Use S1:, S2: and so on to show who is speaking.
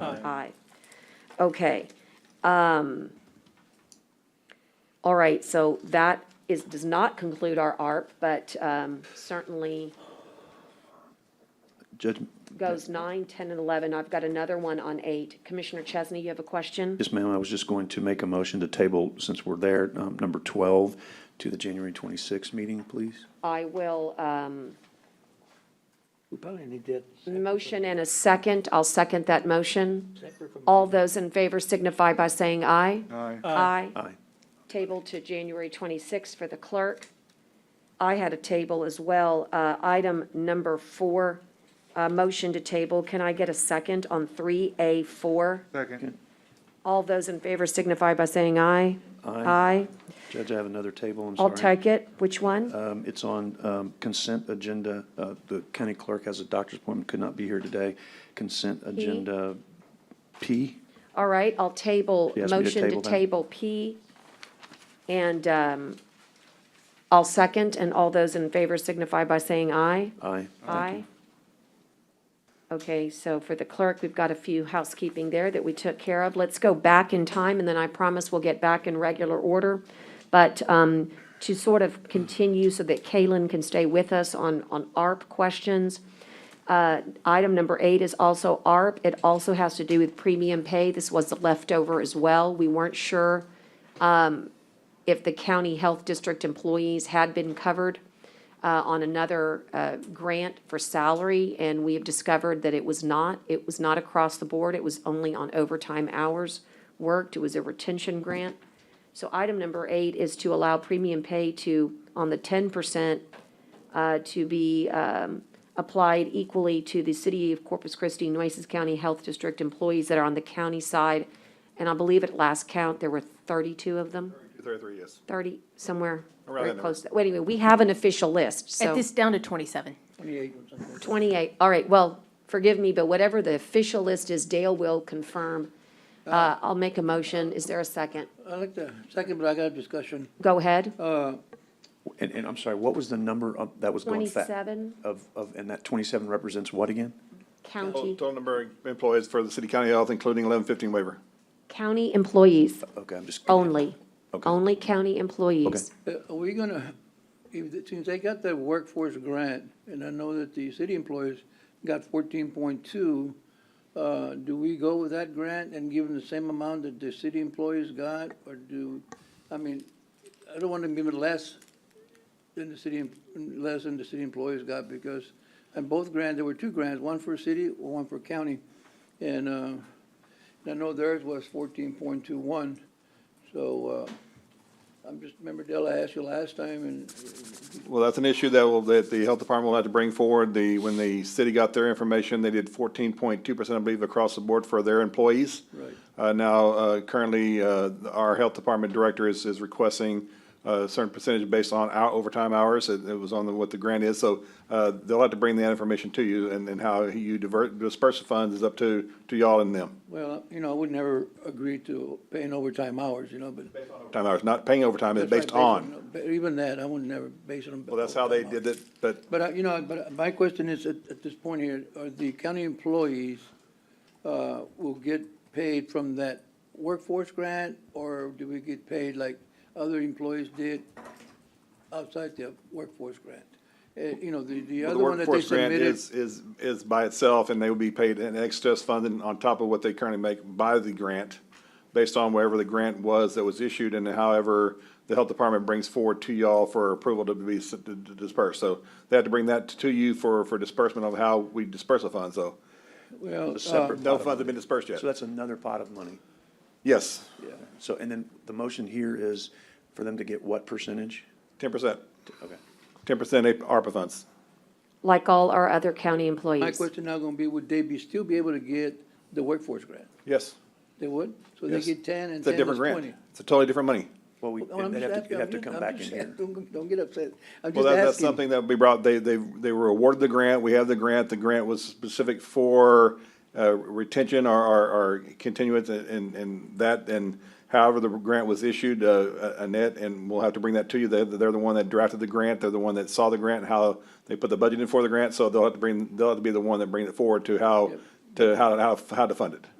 S1: Aye. Okay. Um, All right, so that is, does not conclude our ARP, but um, certainly
S2: Judge,
S1: goes nine, 10, and 11. I've got another one on eight. Commissioner Chesney, you have a question?
S2: yes, ma'am, I was just going to make a motion to table, since we're there, um, number 12 to the January 26th meeting, please.
S1: I will, um,
S3: We probably need that
S1: motion and a second. I'll second that motion.
S3: separate from.
S1: All those in favor signify by saying aye.
S4: Aye.
S1: Aye.
S2: Aye.
S1: Table to January 26th for the clerk. I had a table as well. Uh, Item number four, uh, motion to table. Can I get a second on 3A4?
S4: Second.
S1: All those in favor signify by saying aye.
S2: Aye. Judge, I have another table, I'm
S1: I'll
S2: sorry.
S1: take it. Which one?
S2: Um, It's on um, consent agenda. Uh, The county clerk has a doctor's appointment, could not be here today. Consent agenda P.
S1: All right, I'll table,
S2: She asked me to
S1: motion to
S2: table that.
S1: table P. And um, I'll second, and all those in favor signify by saying aye.
S2: Aye. Thank you.
S1: Aye. Okay, so for the clerk, we've got a few housekeeping there that we took care of. Let's go back in time, and then I promise we'll get back in regular order. But um, to sort of continue so that Kalen can stay with us on, on ARP questions, uh, item number eight is also ARP. It also has to do with premium pay. This was the leftover as well. We weren't sure um, if the county health district employees had been covered uh, on another uh, grant for salary, and we have discovered that it was not. It was not across the board. It was only on overtime hours worked. It was a retention grant. So item number eight is to allow premium pay to, on the ten percent, uh, to be um, applied equally to the City of Corpus Christi, Nueces County Health District employees that are on the county side. And I believe at last count, there were thirty-two of them.
S4: 33, yes.
S1: 30, somewhere
S4: Around
S1: very
S4: that
S1: close. Well, Anyway, we have an official list,
S5: At
S1: so
S5: this, down to 27.
S3: Twenty-eight or something.
S1: 28, all right, well, forgive me, but whatever the official list is, Dale will confirm. Uh, I'll make a motion. Is there a second?
S3: I like the second, but I got a discussion.
S1: Go ahead.
S3: Uh,
S2: And, and I'm sorry, what was the number of, that was going fast?
S1: 27
S2: Of, of, and that 27 represents what again?
S1: county,
S4: Total number of employees for the city county health, including 1115 waiver.
S1: county employees
S2: Okay, I'm just.
S1: only,
S2: Okay.
S1: only county employees.
S3: uh, are we gonna, if- since they got that workforce grant, and I know that the city employees got fourteen point two, uh, do we go with that grant and give them the same amount that the city employees got, or do, I mean, I don't want to give it less than the city, em- less than the city employees got, because on both grants, there were two grants, one for city, one for county, and, uh, I know theirs was fourteen point two one, so, uh, I'm just, remember Dell, I asked you last time, and
S4: Well, that's an issue that will, that the health department will have to bring forward. The, when the city got their information, they did 14.2%, I believe, across the board for their employees.
S3: Right.
S4: Uh, now, uh, currently, uh, our health department director is, is requesting uh, a certain percentage based on our overtime hours. It, it was on the, what the grant is. So, uh, they'll have to bring that information to you and, and how you divert, disperse the funds is up to, to y'all and them.
S3: well, you know, I would never agree to paying overtime hours, you know, but.
S4: Time hours, not paying overtime, it's
S3: That's right,
S4: based on.
S3: but Even that, I would never base it on.
S4: Well, that's how they
S3: overtime hours.
S4: did it, but
S3: But, I- you know, but my question is, at, at this point here, are the county employees, uh, will get paid from that workforce grant? Or do we get paid like other employees did outside the workforce grant? Uh, you know, the, the
S4: the
S3: other one that they
S4: workforce grant
S3: submitted.
S4: is, is, is by itself, and they will be paid an extra funding on top of what they currently make by the grant, based on wherever the grant was that was issued, and however the health department brings forward to y'all for approval to be s- to- to disperse. So they have to bring that to you for, for disbursement of how we disperse the funds, though.
S3: Well,
S2: It's a
S3: uh,
S2: separate
S4: No
S2: pot of
S4: funds have
S2: money.
S4: been dispersed yet.
S2: So that's another pot of money.
S4: Yes,
S2: So, and then the motion here is for them to get what percentage?
S4: ten percent,
S2: Okay.
S4: ten percent ARPA funds.
S1: Like all our other county
S3: My
S1: employees.
S3: question now gonna be, would they be, still be able to get the workforce grant?
S4: Yes.
S3: They would? So they
S4: Yes.
S3: get ten and
S4: It's a
S3: ten is
S4: different
S3: twenty?
S4: grant. It's a totally different money.
S2: Well, we,
S3: Oh, I'm
S2: they'd have
S3: just
S2: to,
S3: asking-
S2: you'd have
S3: I'm
S2: to
S3: just-
S2: come
S3: I'm
S2: back in
S3: just
S2: here.
S3: asking. Don't, don't get upset. I'm
S4: Well,
S3: just
S4: that,
S3: asking.
S4: that's something that we brought, they, they, they were awarded the grant, we have the grant, the grant was specific for, uh, retention or, or, or continuance and, and that, and however the grant was issued, uh, Annette, and we'll have to bring that to you, they're, they're the one that drafted the grant, they're the one that saw the grant, how they put the budget in for the grant, so they'll have to bring, they'll have to be the one that bring it forward to how,
S3: Yep.
S4: to how, how, how to fund it.